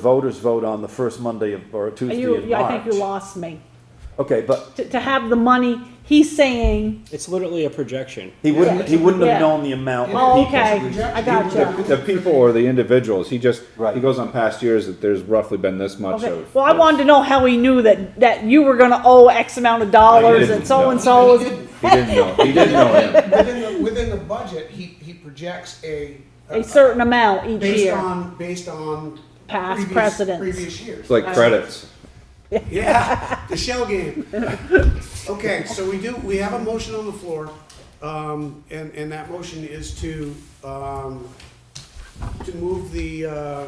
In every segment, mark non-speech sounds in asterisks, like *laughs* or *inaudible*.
voters vote on the first Monday of, or Tuesday in You, March. yeah, I think you lost me. Okay, but To, to have the money, he's saying, It's literally a projection. he wouldn't, he wouldn't Yeah. have known the amount. oh, okay, I gotcha. The people or the individuals, he just, Right. he goes on past years that there's roughly been this much Okay, of. well, I wanted to know how he knew that, that you were gonna owe X amount of dollars didn't and so and And so he is did- He didn't know, he didn't know him. Within the, within the budget, he, he projects a. a certain amount each Based year. on, based on. Past previous- precedents. Uh, Previous years. It's like credits. *laughs* Yeah, the shell game. Okay, so we do, we have a motion on the floor, um, and, and that motion is to, um, to move the, uh,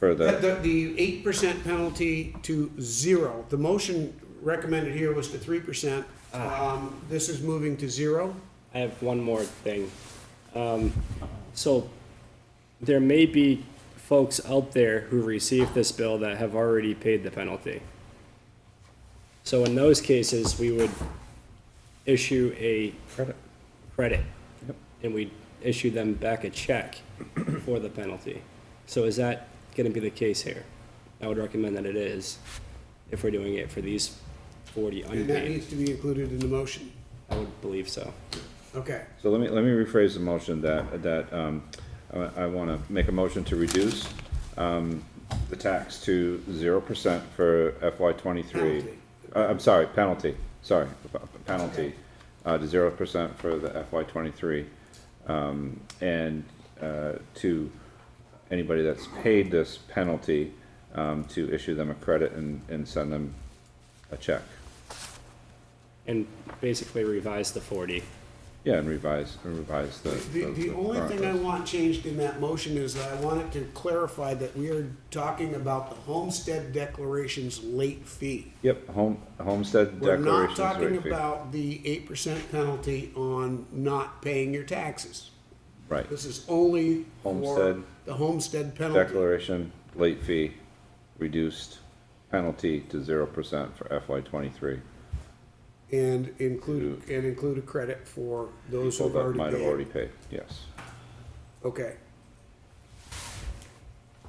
for the- the, the, the eight percent penalty to zero. The motion recommended here was to three percent. Um, this is moving to zero. I have one more thing. Um, so there may be folks out there who received this bill that have already paid the penalty. So in those cases, we would issue a Credit. credit, and we issue them back a check for the penalty. So is that going to be the case here? I would recommend that it is, if we're doing it for these forty And that unpaid. needs to be included in the motion. I would believe so. Okay. so let me, let me rephrase the motion that, that, um, I, I wanna make a motion to reduce, um, the tax to zero percent for FY twenty-three. Penalty. Uh, I'm sorry, penalty, sorry, p- penalty, uh, to zero percent for the FY twenty-three. Um, and, uh, to anybody that's paid this penalty, um, to issue them a credit and, and send them a check. And basically revise the forty. Yeah, and revise, and revise the. The, the only current thing I list. want changed in that motion is that I want it to clarify that we are talking about the homestead declaration's late fee. Yep, home, homestead We're declaration. not talking about the eight percent penalty on not paying your taxes. Right, This is only for Homestead. the homestead penalty. declaration, late fee, reduced penalty to zero percent for FY twenty-three. And include, and include a credit for those So who've that already might have already paid. paid, yes. Okay.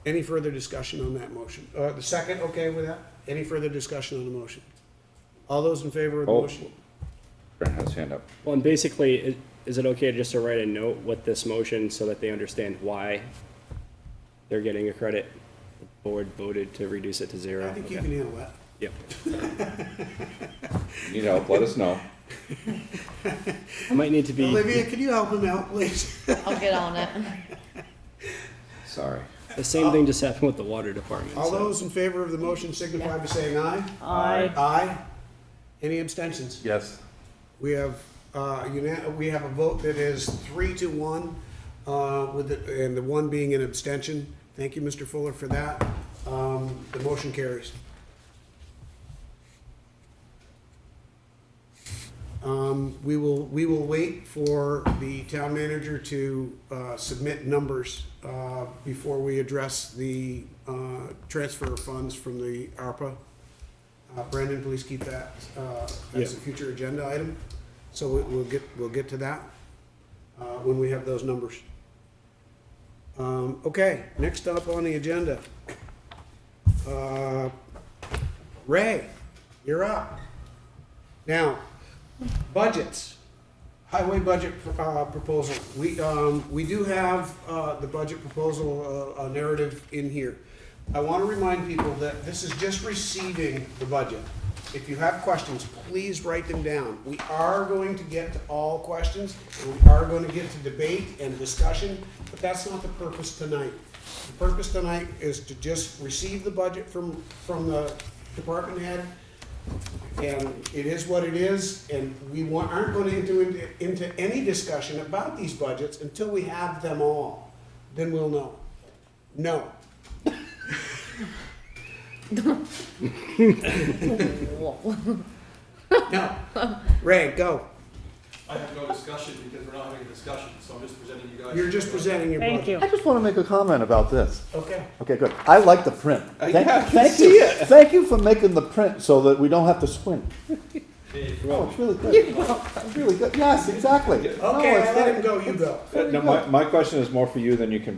Any further discussion on that motion? Uh, the second, okay with that? Any further discussion on the motion? All those in favor of the Oh. motion? Brent has hand up. Well, and basically, i- is it okay just to write a note with this motion so that they understand why they're getting a credit? The board voted to reduce it to zero. I think you Okay. can handle that. Yep. You know, let us know. Might need to be, Olivia, can you help him out, please? I'll get on it. Sorry. the same thing just happened with the water department. All so- those in favor of the motion signify by saying aye. I, Aye. Any abstentions? Yes. We have, uh, una- we have a vote that is three to one, uh, with, the- and the one being an abstention. Thank you, Mr. Fuller, for that. Um, The motion carries. Um, We will, we will wait for the town manager to uh, submit numbers uh, before we address the uh, transfer of funds from the ARPA. Uh, Brandon, please keep that uh, as a Yeah. future agenda item. So we- we'll get, we'll get to that uh, when we have those numbers. Um, Okay, next up on the agenda. Uh, Ray, you're up. Now, budgets. Highway budget uh, proposal. We, um, we do have uh, the budget proposal uh, uh, narrative in here. I want to remind people that this is just receiving the budget. If you have questions, please write them down. We are going to get to all questions. We are going to get to debate and discussion, but that's not the purpose tonight. The purpose tonight is to just receive the budget from, from the department head, and it is what it is, and we wa- aren't going to enter into, into any discussion about these budgets until we have them all. Then we'll know. No. No. Ray, go. I have no discussion because we're not having a discussion, so I'm just presenting you guys. You're just presenting your budget. thank you. I just want to make a comment about this. Okay. Okay, good. I like the print. Thank- Uh, yeah, I can thank you. Thank you for making the print so that we don't have to squint. *laughs* Oh, it's really good. It's really good. Yes, exactly. No, Okay, it's I let very- him go, you go. Now, my, my question is more for you than you can